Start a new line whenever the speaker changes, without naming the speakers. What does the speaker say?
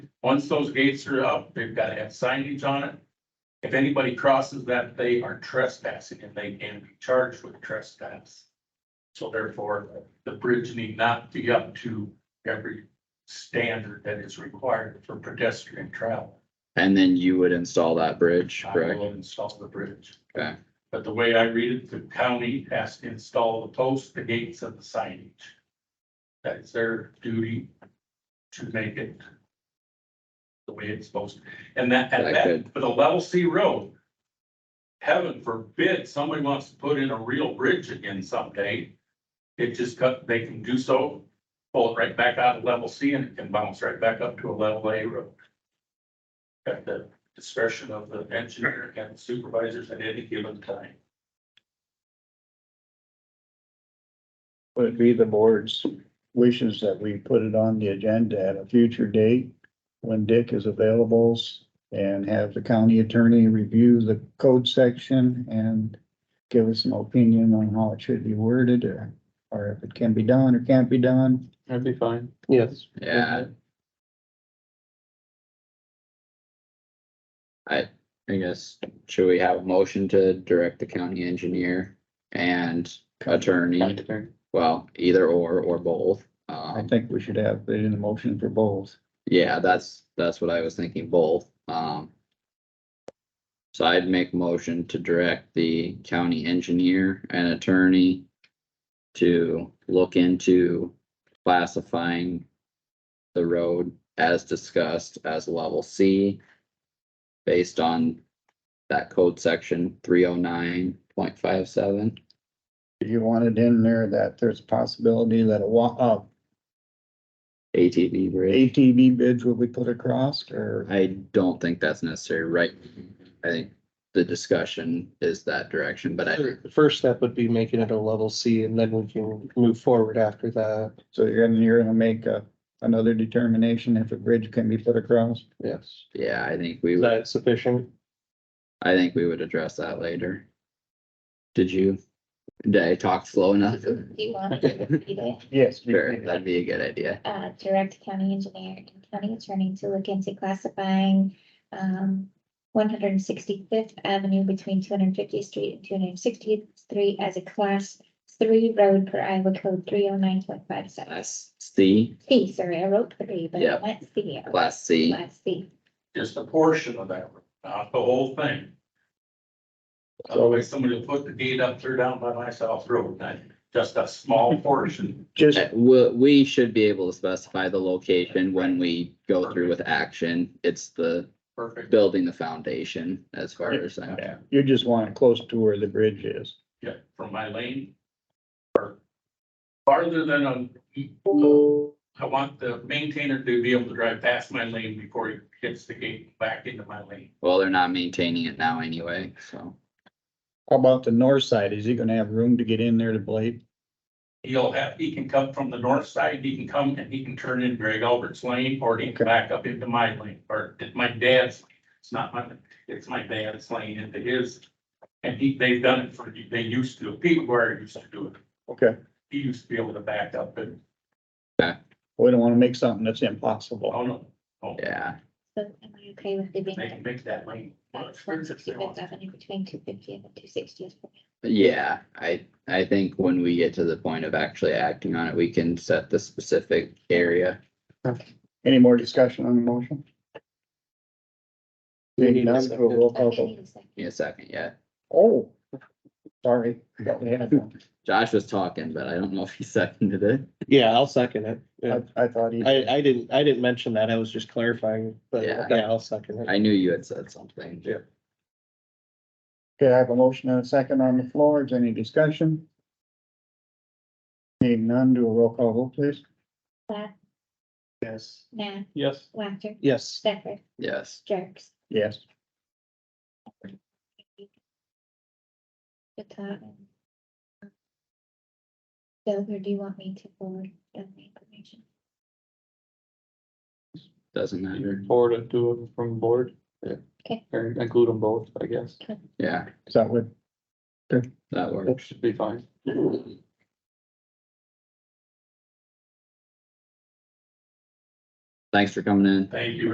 Once those gates are up, they've got to have signage on it. If anybody crosses that, they are trespassing and they can be charged with trespass. So therefore, the bridge need not be up to every standard that is required for pedestrian travel.
And then you would install that bridge,
I
correct?
will install the bridge.
Okay.
But the way I read it, the county has to install the posts, the gates and the signage. That is their duty to make it the way it's supposed to. And that,
That
and that,
could-
for the level C road, heaven forbid, somebody wants to put in a real bridge again someday. It just cut, they can do so, pull it right back out of level C and it can bounce right back up to a level A road. At the discretion of the engineer and supervisors at any given time.
Would it be the board's wishes that we put it on the agenda at a future date when Dick is available and have the county attorney review the code section and give us an opinion on how it should be worded or, or if it can be done or can't be done?
That'd be fine. Yes.
Yeah. I, I guess, should we have a motion to direct the county engineer and attorney? Well, either or, or both.
I
Um,
think we should have it in the motion for both.
yeah, that's, that's what I was thinking, both. Um. So I'd make a motion to direct the county engineer and attorney to look into classifying the road as discussed as level C based on that code section three oh nine point five seven.
Do you want it in there that there's a possibility that a wa, uh,
ATV bridge.
ATV bids will be put across or?
I don't think that's necessary, right? I think the discussion is that direction, but I,
The first step would be making it a level C and then we can move forward after that.
So you're gonna, you're gonna make a, another determination if a bridge can be put across?
Yes.
yeah, I think we,
Is
would-
that sufficient?
I think we would address that later. Did you, did I talk slow enough?
Do you want to repeat it?
Yes.
Sure, that'd be a good idea.
Uh, direct county engineer and county attorney to look into classifying, um, one hundred and sixty-fifth Avenue between two hundred and fiftieth Street and two hundred and sixtieth Street as a class three road per Iowa code three oh nine point five seven.
Class C,
C, sorry, I wrote three, but
Yeah.
I went C.
class C,
Class C.
just a portion of that, road, not the whole thing. Otherwise, somebody will put the gate up there down by my south road, not just a small portion.
Just,
Uh, we, we should be able to specify the location when we go through with action. It's the
Perfect.
building the foundation as far as I'm.
you just want it close to where the bridge is.
Yeah, from my lane. Or farther than a, I want the maintainer to be able to drive past my lane before he hits the gate back into my lane.
Well, they're not maintaining it now anyway, so.
How about the north side? Is he gonna have room to get in there to blade?
He'll have, he can come from the north side, he can come and he can turn in Greg Albert's lane, or he can back up into my lane, or it's my dad's. lane. It's not my, it's my dad's lane into his. And he, they've done it for, they used to, Pete Ware used to do it.
Okay.
He used to be able to back up and,
We don't wanna make something that's impossible.
oh no, oh,
Yeah,
So am I okay with it being
they can make that lane.
one sixty-fifth Avenue between two fiftieth and two sixtieth?
yeah, I, I think when we get to the point of actually acting on it, we can set the specific area.
Any more discussion on the motion?
Do we need
Seeing
a
none,
second?
we'll roll call vote.
Give me a second, yeah.
Oh, sorry. thought we had one.
Josh was talking, but I don't know if he seconded it.
Yeah, I'll second it. Yeah.
I, I thought he,
I, I didn't, I didn't mention that. I was just clarifying, but
Yeah.
yeah, I'll second it.
I knew you had said something.
Yeah.
okay, I have a motion and a second on the floor. Is any discussion? Seeing none, do a roll call vote, please.
Platt,
Yes.
Nat,
Yes.
Whacker,
Yes.
Stecker,
Yes,
Jerks.
Yes.
But, um, Bill, or do you want me to forward the information?
doesn't matter.
Or to do it from board.
Yeah.
Okay.
Or include them both, I guess.
Yeah,
Is that what?
that
That
works.
should be fine.
Thanks for coming in.
Thank you